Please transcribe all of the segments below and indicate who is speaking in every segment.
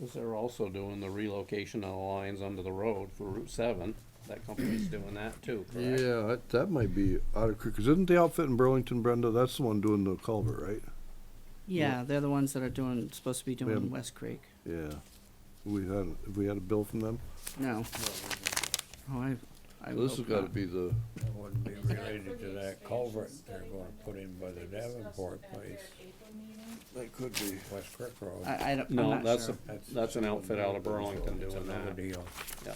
Speaker 1: Cause they're also doing the relocation of the lines under the road for Route seven, that company's doing that too, correct?
Speaker 2: Yeah, that, that might be out of, because isn't the outfit in Burlington, Brenda, that's the one doing the culvert, right?
Speaker 3: Yeah, they're the ones that are doing, supposed to be doing
Speaker 2: haven't-
Speaker 3: West Creek.
Speaker 2: Yeah. We had, have we had a bill from them?
Speaker 3: No. Oh, I, I
Speaker 2: So This has
Speaker 3: hope
Speaker 2: gotta
Speaker 3: not.
Speaker 2: be the,
Speaker 4: That wouldn't be
Speaker 5: that for
Speaker 4: related to
Speaker 5: the
Speaker 4: that
Speaker 5: expansion
Speaker 4: culvert they're
Speaker 5: study
Speaker 4: gonna
Speaker 5: when
Speaker 4: put in by the
Speaker 5: they discussed
Speaker 4: Davenport
Speaker 5: it at their
Speaker 4: place,
Speaker 5: April meeting.
Speaker 2: that could be.
Speaker 4: West Creek Road.
Speaker 3: I, I don't, I'm
Speaker 1: No,
Speaker 3: not
Speaker 1: that's,
Speaker 3: sure.
Speaker 1: a- that's an outfit out of Burlington
Speaker 4: It's
Speaker 1: doing
Speaker 4: another
Speaker 1: that.
Speaker 4: deal.
Speaker 1: Yeah.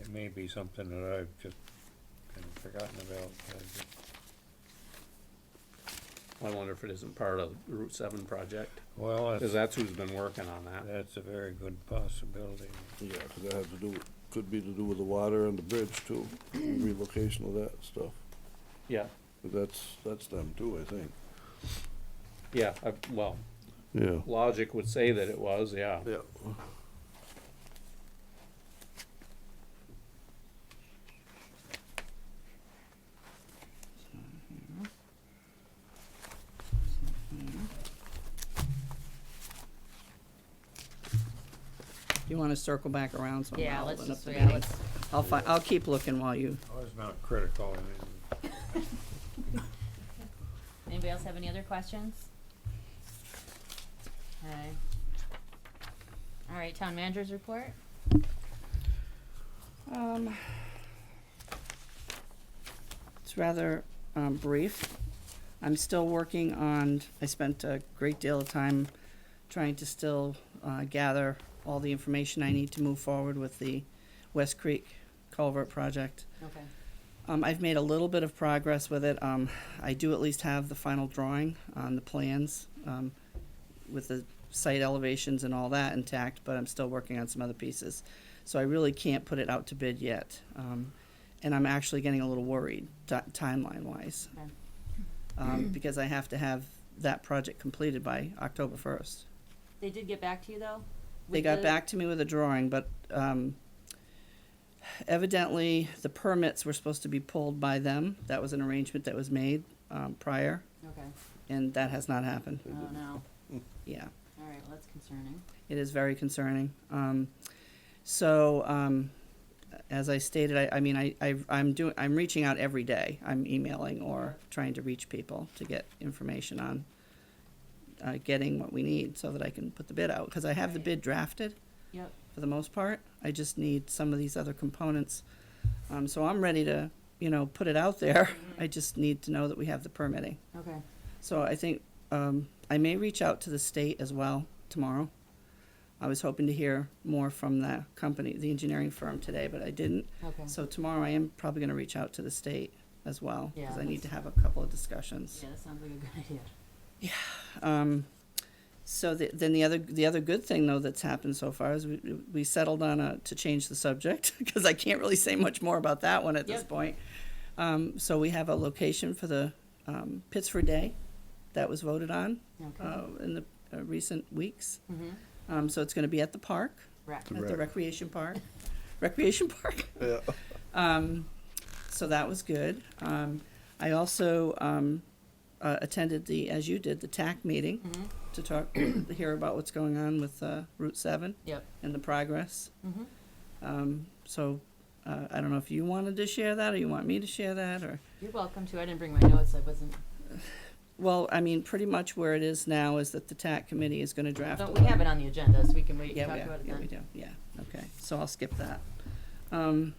Speaker 4: It may be something that I've just kind of forgotten about. I just-
Speaker 1: I wonder if it isn't part of the Route seven project,
Speaker 4: Well,
Speaker 1: cause
Speaker 4: that's,
Speaker 1: that's who's been working on that.
Speaker 4: that's a very good possibility.
Speaker 2: Yeah, because that has to do, could be to do with the water and the bridge too, relocation of that stuff.
Speaker 1: Yeah,
Speaker 2: But that's, that's them too, I think.
Speaker 1: yeah, I, well,
Speaker 2: Yeah.
Speaker 1: logic would say that it was, yeah.
Speaker 2: Yeah.
Speaker 3: You wanna circle back around somehow?
Speaker 5: Yeah, let's
Speaker 3: open up
Speaker 5: just,
Speaker 3: the
Speaker 5: yeah,
Speaker 3: meeting?
Speaker 5: let's,
Speaker 3: I'll fi- I'll keep looking while you,
Speaker 4: Oh, it's not critical, I mean,
Speaker 5: anybody else have any other questions? Okay. All right, town managers report?
Speaker 3: um. It's rather, um, brief. I'm still working on, I spent a great deal of time trying to still, uh, gather all the information I need to move forward with the West Creek culvert project.
Speaker 5: Okay.
Speaker 3: Um, I've made a little bit of progress with it. Um, I do at least have the final drawing on the plans, um, with the site elevations and all that intact, but I'm still working on some other pieces. So I really can't put it out to bid yet. Um, and I'm actually getting a little worried, ti- timeline wise.
Speaker 5: Okay.
Speaker 3: Um, because I have to have that project completed by October first.
Speaker 5: They did get back to you though?
Speaker 3: They
Speaker 5: with
Speaker 3: got
Speaker 5: the-
Speaker 3: back to me with a drawing, but um, evidently the permits were supposed to be pulled by them. That was an arrangement that was made um, prior,
Speaker 5: Okay,
Speaker 3: and that has not happened.
Speaker 5: oh no,
Speaker 3: Yeah,
Speaker 5: all right, well, that's concerning.
Speaker 3: it is very concerning. Um, so, um, as I stated, I, I mean, I, I, I'm doing, I'm reaching out every day. I'm emailing or trying to reach people to get information on uh, getting what we need so that I can put the bid out because I have the
Speaker 5: Right.
Speaker 3: bid drafted.
Speaker 5: Yep,
Speaker 3: for the most part. I just need some of these other components. Um, so I'm ready to, you know, put it out there.
Speaker 5: Mm-hmm.
Speaker 3: I just need to know that we have the permitting.
Speaker 5: okay,
Speaker 3: So I think, um, I may reach out to the state as well tomorrow. I was hoping to hear more from the company, the engineering firm today, but I didn't.
Speaker 5: okay,
Speaker 3: So tomorrow I am probably gonna reach out to the state as well,
Speaker 5: Yeah,
Speaker 3: cause I
Speaker 5: that's-
Speaker 3: need to have a couple of discussions.
Speaker 5: yeah, that sounds like a good idea.
Speaker 3: Um, so the, then the other the other good thing though that's happened so far is we we settled on a to change the subject because I can't really say much more about that one at this
Speaker 5: Yep.
Speaker 3: point. Um, so we have a location for the um, Pittsford Day that was voted on
Speaker 5: Okay,
Speaker 3: uh, in the uh, recent weeks.
Speaker 5: mhm,
Speaker 3: Um, so it's going to be at the park,
Speaker 5: right,
Speaker 3: at the
Speaker 2: Rec.
Speaker 3: recreation park, recreation park.
Speaker 2: Yeah.
Speaker 3: Um, so that was good. Um, I also um, uh, attended the, as you did, the TAC meeting
Speaker 5: mhm,
Speaker 3: to talk, to hear about what's going on with uh, Route 7
Speaker 5: yep,
Speaker 3: and the progress.
Speaker 5: mhm.
Speaker 3: Um, so uh, I don't know if you wanted to share that or you want me to share that or.
Speaker 5: You're welcome to, I didn't bring my notes, I wasn't,
Speaker 3: Well, I mean, pretty much where it is now is that the TAC committee is going to draft.
Speaker 5: don't,
Speaker 3: a
Speaker 5: we have it on the agenda, so we can wait, and
Speaker 3: Yeah,
Speaker 5: talk
Speaker 3: we
Speaker 5: about
Speaker 3: are.
Speaker 5: it
Speaker 3: yeah, we
Speaker 5: then.
Speaker 3: do, yeah, okay, so I'll skip that. Um,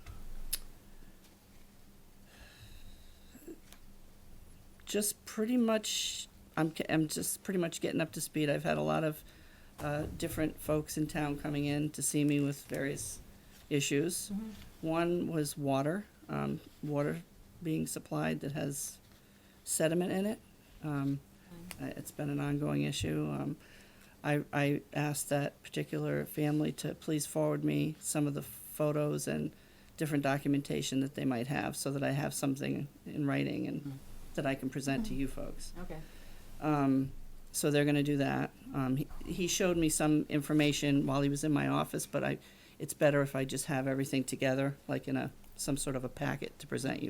Speaker 3: Just pretty much, I'm, ca- I'm just pretty much getting up to speed, I've had a lot of, uh, different folks in town coming in to see me with various issues.
Speaker 5: Mhm.
Speaker 3: One was water, um, water being supplied that has sediment in it. Um,
Speaker 5: Mm-hmm.
Speaker 3: uh, it's been an ongoing issue. Um, I, I asked that particular family to please forward me some of the photos and different documentation that they might have so that I have something in writing and that I can present to you folks.
Speaker 5: Okay,
Speaker 3: Um, so they're going to do that. Um, he, he showed me some information while he was in my office, but I, it's better if I just have everything together, like in a, some sort of a packet to present you